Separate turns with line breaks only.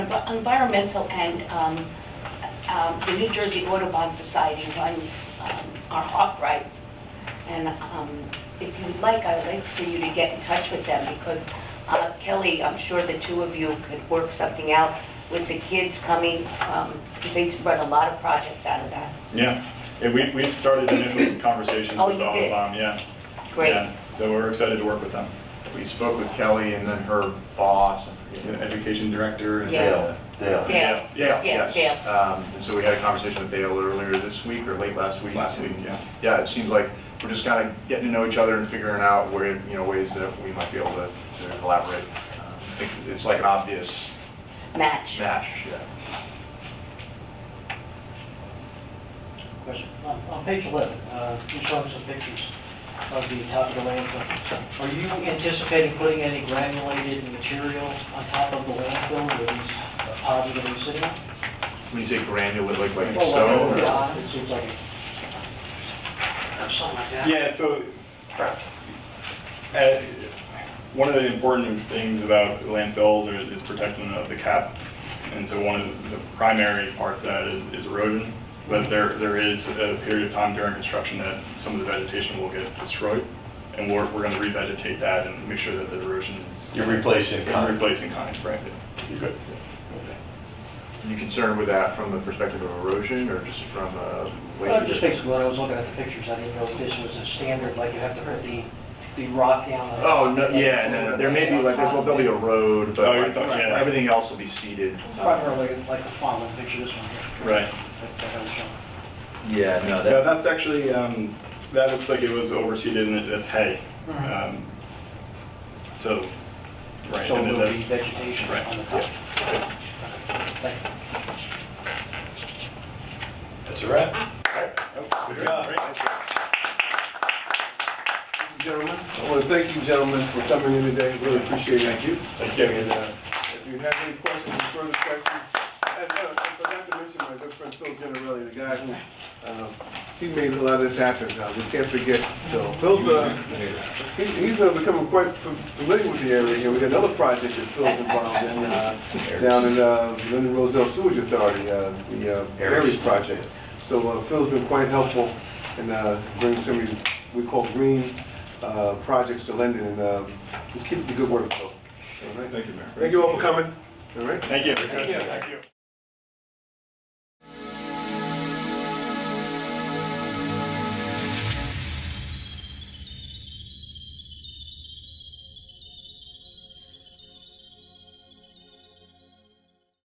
environmental and um, um, the New Jersey Audubon Society runs um, our uprise. And um, if you'd like, I'd like for you to get in touch with them because uh, Kelly, I'm sure the two of you could work something out with the kids coming, because they run a lot of projects out of that.
Yeah, Yeah, we, we started initial conversations
Oh,
with
you did?
Audubon, yeah.
Great.
Yeah. So we're excited to work with them,
We spoke with Kelly and then her boss, I forget
Yeah,
who-
education director. and-
Yeah.
Dale, Dale.
Dale.
Dale,
Yes,
yes. Um, And so we had a conversation with Dale earlier this week or late last week.
Last week, yeah.
Yeah, it seems like we're just kind of getting to know each other and figuring out where, you know, ways that we might be able to to collaborate. Um, I think It's like an obvious
Match.
match, yeah.
Question. On on page 11, uh, you showed us some pictures of the top of the landfill. Are you anticipating putting any granulated material on top of the landfill with these uh, pods that are sitting? on?
When you say granular, like, like
Well, like
stone?
over the
or-
bottom, It seems like, it- or something like that.
Yeah, so, uh, one of the important things about landfills is- is protection of the cap. And so one of the primary parts of that is is erosion. But there, there is a period of time during construction that some of the vegetation will get destroyed. And we're, we're gonna revegetate that and make sure that the erosion is.
You're replacing
You're
concrete.
Replacing kind, right? You could.
You concerned with that from the perspective of erosion or just from a? way
Uh,
Well,
to-
just basically, when I was looking at the pictures, I didn't know if this was a standard, like you have to put the, the rock down. on-
Oh, no, yeah, no, no, there may be like, there's- there'll be a road,
Oh,
but
you're
like,
talking- yeah.
everything else will be seeded.
Primarily like the following picture, this one here.
Right.
that- that I was showing.
Yeah, no,
Yeah, that's actually, um, that looks like it was overseeded and it- that's hay.
Mhm.
Um, So, right.
So
and then
there will be
that-
vegetation
Right,
on the top. Thank you.
That's a wrap. Good job.
Gentlemen, I want to thank you gentlemen for coming in today, really appreciate it. Thank you.
Thank you.
And uh, if you have any questions, further questions, and uh, I forgot to mention my good friend Phil Generelli, the guy who, um, he made a lot of this happen, uh, we can't forget Phil. Phil's, uh, he- he's uh, becoming quite familiar with the area here, we got another project that Phil's involved in, uh, down in uh, Lyndon Roselle Sewage Authority, uh, the uh, Aries project. So uh, Phil's been quite helpful in uh, bringing some of these, we call green uh, projects to Linden, and uh, just keep up the good work, Phil. All right?
Thank you, Mayor.
Thank you all for coming, all right?
Thank you. Thank you.